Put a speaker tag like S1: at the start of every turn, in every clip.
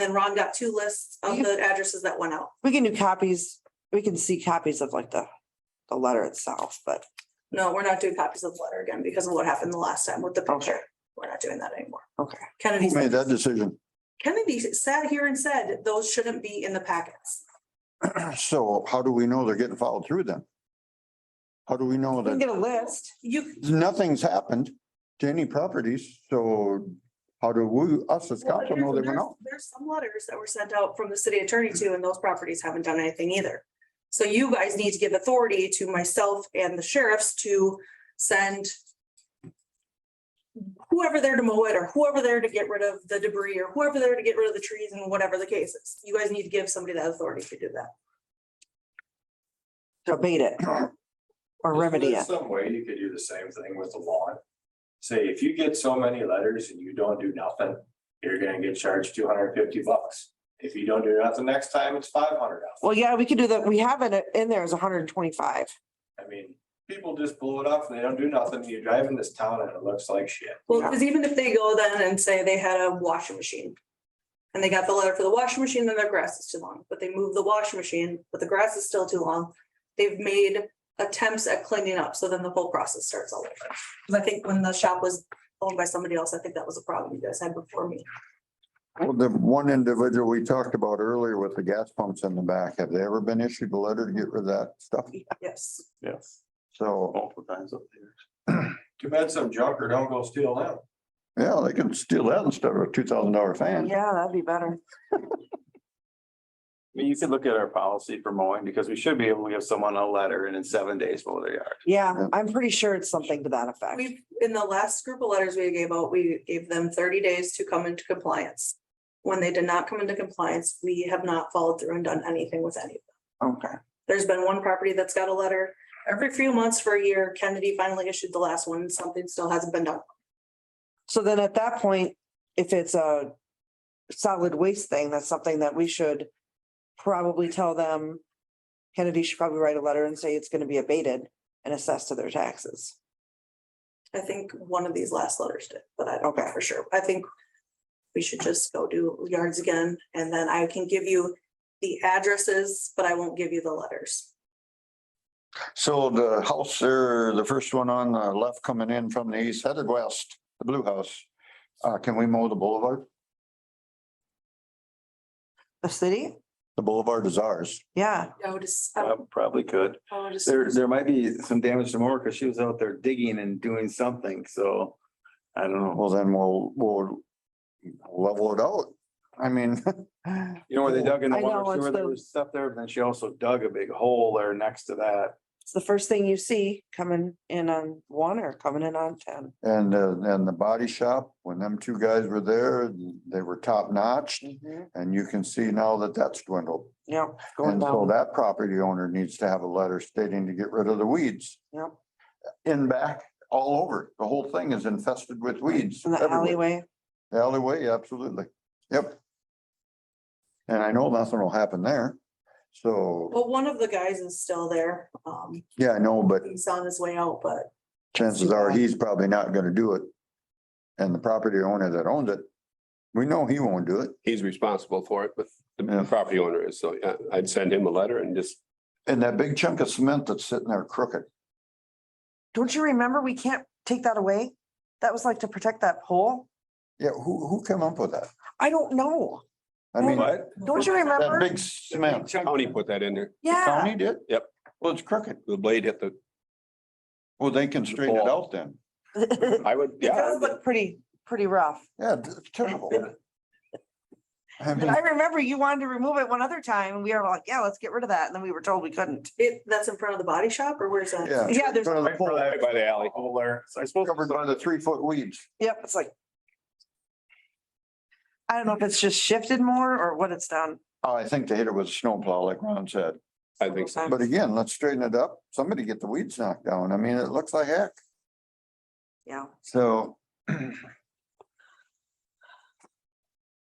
S1: then Ron got two lists of
S2: You-
S1: the addresses that went out.
S2: We can do copies, we can see copies of like the, the letter itself, but
S1: No, we're not doing copies of the letter again because of what happened the last time with the
S2: Okay.
S1: picture. We're not doing that anymore.
S2: Okay.
S1: Kennedy,
S3: Who made that decision?
S1: Kennedy sat here and said those shouldn't be in the packets.
S3: So how do we know they're getting followed through then? How do we know
S2: we can
S3: that
S2: get a list.
S1: You,
S3: nothing's happened to any properties? So how do we, us as
S1: well,
S3: council know they went
S1: there's
S3: out?
S1: there's some letters that were sent out from the city attorney too, and those properties haven't done anything either. So you guys need to give authority to myself and the sheriffs to send whoever there to mow it or whoever there to get rid of the debris or whoever there to get rid of the trees and whatever the case is. You guys need to give somebody that authority to do that.
S2: to abate it or
S4: Isn't
S2: remedy
S4: there
S2: it.
S4: Some way you could do the same thing with the lawn. Say, if you get so many letters and you don't do nothing, you're gonna get charged two hundred and fifty bucks. If you don't do nothing next time, it's five hundred dollars.
S2: Well, yeah, we could do that. We have it in there as hundred and twenty-five.
S4: I mean, people just blow it up and they don't do nothing. You drive in this town and it looks like shit.
S1: Well,
S2: Yeah.
S1: because even if they go then and say they had a washing machine. And they got the letter for the washing machine, then their grass is too long, but they moved the washing machine, but the grass is still too long. They've made attempts at cleaning up, so then the whole process starts all over. Because I think when the shop was owned by somebody else, I think that was a problem you guys had before me.
S3: Well, the one individual we talked about earlier with the gas pumps in the back, have they ever been issued a letter to get rid of that stuff?
S1: Yes,
S5: Yes,
S3: So,
S5: multiple times up there.
S4: Too bad some junker don't go steal them.
S3: yeah, they can steal that instead of a two thousand dollar fan.
S2: Yeah, that'd be better.
S5: I mean, you could look at our policy for mowing because we should be able to give someone a letter and in seven days mow their yard.
S2: Yeah, I'm pretty sure it's something to that effect.
S1: we've, in the last group of letters we gave out, we gave them thirty days to come into compliance. When they did not come into compliance, we have not followed through and done anything with any of
S2: Okay.
S1: There's been one property that's got a letter. Every few months for a year, Kennedy finally issued the last one. Something still hasn't been done.
S2: So then at that point, if it's a solid waste thing, that's something that we should probably tell them. Kennedy should probably write a letter and say it's gonna be abated and assessed to their taxes.
S1: I think one of these last letters did, but I don't know
S2: Okay.
S1: for sure. I think we should just go do yards again and then I can give you the addresses, but I won't give you the letters.
S3: So the house there, the first one on the left coming in from the east headed west, the blue house. Uh, can we mow the boulevard?
S2: The city?
S3: The boulevard is ours.
S2: Yeah,
S1: I would just,
S2: Oh.
S1: I
S5: Prob- Probably could.
S1: would just,
S5: There, there might be some damage to more because she was out there digging and doing something, so I don't know.
S3: Well, then we'll, we'll level it out. I mean,
S5: You know where they dug in the
S2: I know,
S5: water
S2: it's
S5: sewer, there
S2: the-
S5: was stuff there, but then she also dug a big hole there next to that.
S2: it's the first thing you see coming in on one or coming in on ten.
S3: and, uh, and the body shop, when them two guys were there, they were top notch. And you can see now that that's dwindled.
S2: Yeah, going
S3: And so
S2: down.
S3: that property owner needs to have a letter stating to get rid of the weeds.
S2: Yep.
S3: In back, all over. The whole thing is infested with weeds.
S2: In the
S3: everywhere.
S2: alleyway.
S3: Alleyway, absolutely. Yep. And I know nothing will happen there. So,
S1: well, one of the guys is still there. Um,
S3: yeah, I know, but
S1: he's on his way out, but
S3: chances are he's probably not gonna do it. And the property owner that owns it, we know he won't do it.
S6: he's responsible for it, but
S3: Yeah.
S6: the property owner is, so yeah, I'd send him a letter and just.
S3: And that big chunk of cement that's sitting there crooked,
S2: Don't you remember? We can't take that away. That was like to protect that pole.
S3: yeah, who, who came up with that?
S2: I don't know.
S3: I mean,
S6: What?
S2: Don't you
S3: that
S2: remember?
S3: big cement,
S6: County put that in there.
S3: the
S2: Yeah,
S3: county did?
S6: Yep.
S3: Well, it's crooked.
S6: The blade hit the,
S3: Well, they can straighten it out then.
S2: it
S6: I would, yeah,
S2: does look pretty, pretty rough.
S3: Yeah, it's terrible. I mean,
S2: I remember you wanted to remove it one other time and we were like, yeah, let's get rid of that. And then we were told we couldn't.
S1: it, that's in front of the body shop or where's that?
S3: yeah.
S2: Yeah, there's,
S3: Front of the
S4: Right for
S3: pole,
S4: that
S6: right by the alley.
S4: Hole there. So I suppose
S3: Covered by the three foot weeds.
S2: yep, it's like. I don't know if it's just shifted more or what it's done.
S3: Oh, I think they hit it with a snowplow, like Ron said.
S6: I think so.
S3: But again, let's straighten it up. Somebody get the weeds knocked down. I mean, it looks like heck.
S2: Yeah.
S3: So.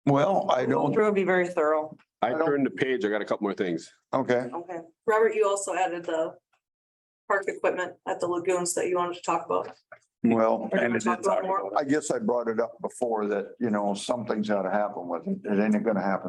S3: Well, I
S2: Going
S3: don't,
S2: through and be very thorough.
S6: I turned the page. I got a couple more things.
S3: okay,
S2: Okay.
S1: Robert, you also added the park equipment at the lagoons that you wanted to talk about.
S3: Well,
S1: Or do you
S4: And
S1: wanna
S4: it's
S1: talk about
S4: already
S1: more?
S4: going.
S3: I guess I brought it up before that, you know, something's gotta happen with it. It ain't gonna happen